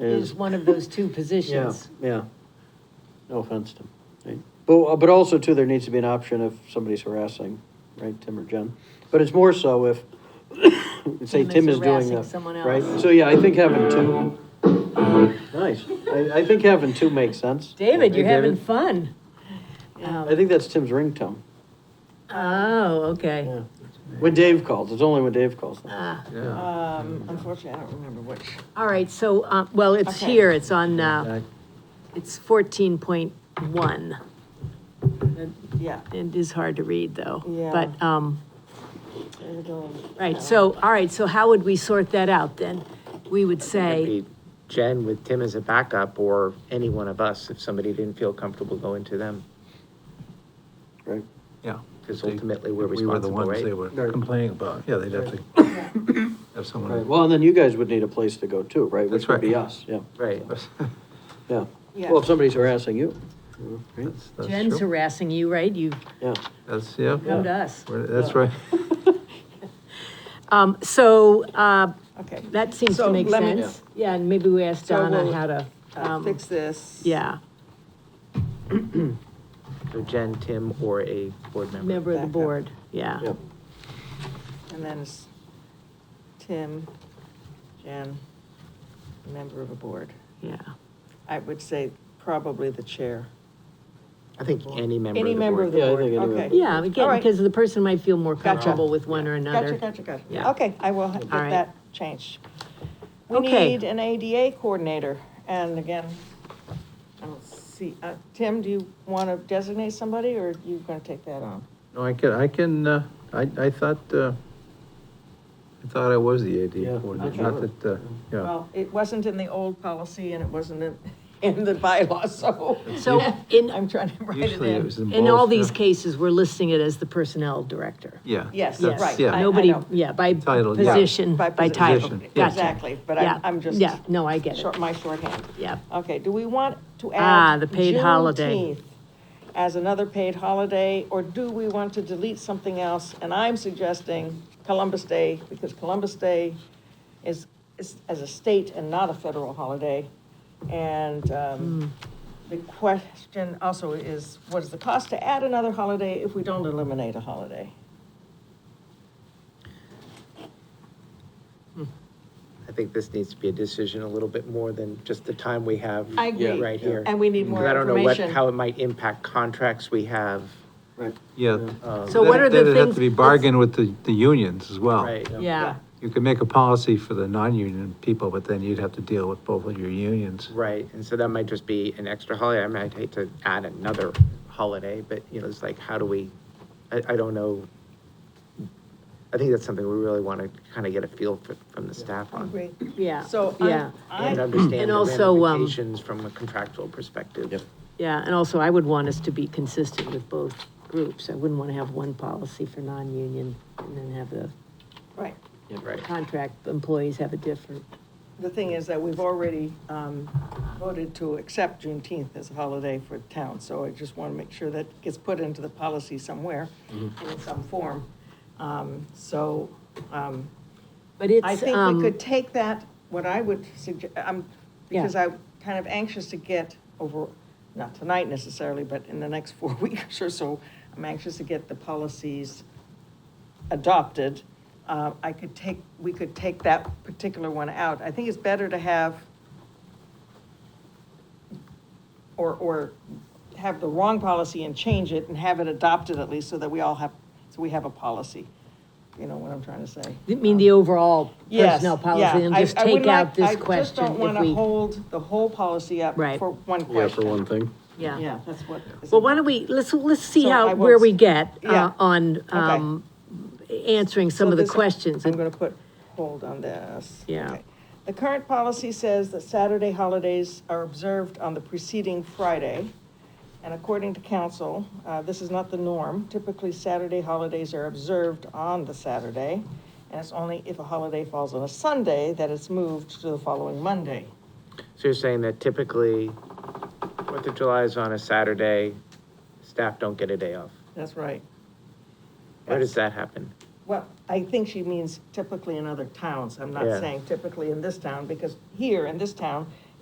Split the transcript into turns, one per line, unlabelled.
is one of those two
Yeah,
positions.
yeah. No offense to him. right? But, uh, but also too, there needs to be an option if somebody's harassing, right, Tim or Jen? But it's more so if, say
Tim is
Tim is doing
harassing
that.
someone
Right,
else.
so yeah, I think having two, nice. I, I think having two makes sense.
David, you're
Hey,
having
David.
fun. Um,
I think that's Tim's ringtone.
Oh, okay.
Yeah. When Dave calls, it's only when Dave calls.
Ah,
Yeah.
Um, unfortunately, I don't remember which.
All right, so, uh, well, it's
Okay.
here, it's on, uh, it's fourteen point one.
Yeah.
It is hard to read, though.
Yeah.
But, um,
it'll-
right, so, all right, so how would we sort that out then? We would
It'd
say,
be Jen with Tim as a backup, or any one of us, if somebody didn't feel comfortable going to them,
Right,
Yeah.
because
They-
ultimately we're
We were the
responsible,
ones they
right?
were
Right.
complaining about. Yeah, they'd have to have
right.
someone.
Well, and then you guys would need a place to go too, right?
That's
Which would be
right.
us, yeah,
Right,
yeah.
Yeah.
Well, if somebody's harassing you, right?
That's- that's
Jen's
true.
harassing you, right? You
yeah.
That's, yeah.
come to us.
We're- That's right.
Um, so, uh,
Okay,
that seems to
So
make
let me-
sense. Yeah, and maybe we ask
So
Donna
we'll,
how to,
I'll
um,
fix this.
yeah,
so Jen, Tim, or a board member.
member of the
Backup.
board, yeah.
Yeah.
And then it's Tim, Jen, member of a board.
Yeah.
I would say probably the chair.
I think any member of
Any
the
member of
board.
the
Yeah, I
board,
think any
okay.
member.
Yeah,
All
again,
right.
because the person might feel more
Gotcha.
comfortable with one or another.
Gotcha, gotcha, gotcha.
Yeah.
Okay, I will get
All right.
that changed. We
Okay.
need an ADA coordinator, and again, I don't see, uh, Tim, do you want to designate somebody, or you gonna take that on?
No, I can, I can, uh, I, I thought, uh, I thought I was the AD
Yeah,
coordinator, not
okay.
that, uh, yeah.
Well, it wasn't in the old policy and it wasn't in, in the bylaw, so
So in,
I'm trying to write it
Usually it
in.
was in
in all
both,
these
yeah.
cases, we're listing it as the personnel director.
Yeah.
Yes,
that's-
right.
yeah.
I-
Nobody,
know.
yeah, by
Title, yeah.
position, by title.
position.
Position, yeah.
Gotcha.
Exactly, but
Yeah,
I'm, I'm just,
Yeah, no, I get it,
short- my shorthand.
yeah.
Okay, do we want to add?
Ah, the paid holiday.
Juneteenth As another paid holiday, or do we want to delete something else? And I'm suggesting Columbus Day, because Columbus Day is, is as a state and not a federal holiday. And, um,
Hmm.
the question also is, what is the cost to add another holiday if we don't eliminate a holiday?
I think this needs to be a decision a little bit more than just the time we have
I agree.
right here.
And we need
Because
more
I don't know what,
information.
how it might impact contracts we have,
Right.
Yeah.
um,
So what are the
Uh, Then- then it'd have
things-
to be bargained with the, the unions as well.
right?
Yeah,
You could make a policy for the non-union people, but then you'd have to deal with both of your unions.
Right, and so that might just be an extra holiday, I mean, I'd hate to add another holiday, but, you know, it's like, how do we, I, I don't know. I think that's something we really want to kind of get a feel for, from the staff on.
yeah.
So
Yeah,
I'm,
And
I,
understand
And
the
also, um,
ramifications from a contractual perspective.
Yep.
yeah, and also I would want us to be consistent with both groups. I wouldn't want to have one policy for non-union and then have the
right.
Right,
contract employees have a different.
The thing is that we've already um, voted to accept Juneteenth as a holiday for town, so I just want to make sure that gets put into the policy somewhere, in some form. Um, So um,
But it's,
I think
um,
we could take that, what I would suggest, I'm,
Yeah.
because I'm kind of anxious to get over, not tonight necessarily, but in the next four weeks or so, I'm anxious to get the policies adopted. Uh, I could take, we could take that particular one out. I think it's better to have or, or have the wrong policy and change it and have it adopted at least so that we all have, so we have a policy. You know what I'm trying to say?
I mean, the overall
Yes,
personnel policy,
yeah.
and
I-
just
I would
take out
like-
this
I just
question
don't want
if
to
we,
hold the whole policy up
Right.
for one
Yeah, for
question.
one thing.
yeah.
Yeah, that's what. is
Well, why don't we, let's, let's see
So I
how,
will
where
s-
we get, uh,
Yeah.
on,
Okay.
um, answering some
So
of the
this-
questions.
I'm gonna put hold on this.
Yeah.
Okay. The current policy says that Saturday holidays are observed on the preceding Friday. And according to council, uh, this is not the norm. Typically, Saturday holidays are observed on the Saturday. And it's only if a holiday falls on a Sunday that it's moved to the following Monday.
so you're saying that typically, Fourth of July is on a Saturday, staff don't get a day off.
That's right.
Where
Yes.
does that happen?
Well, I think she means typically in other towns. I'm not
Yeah.
saying typically in this town, because here in this town,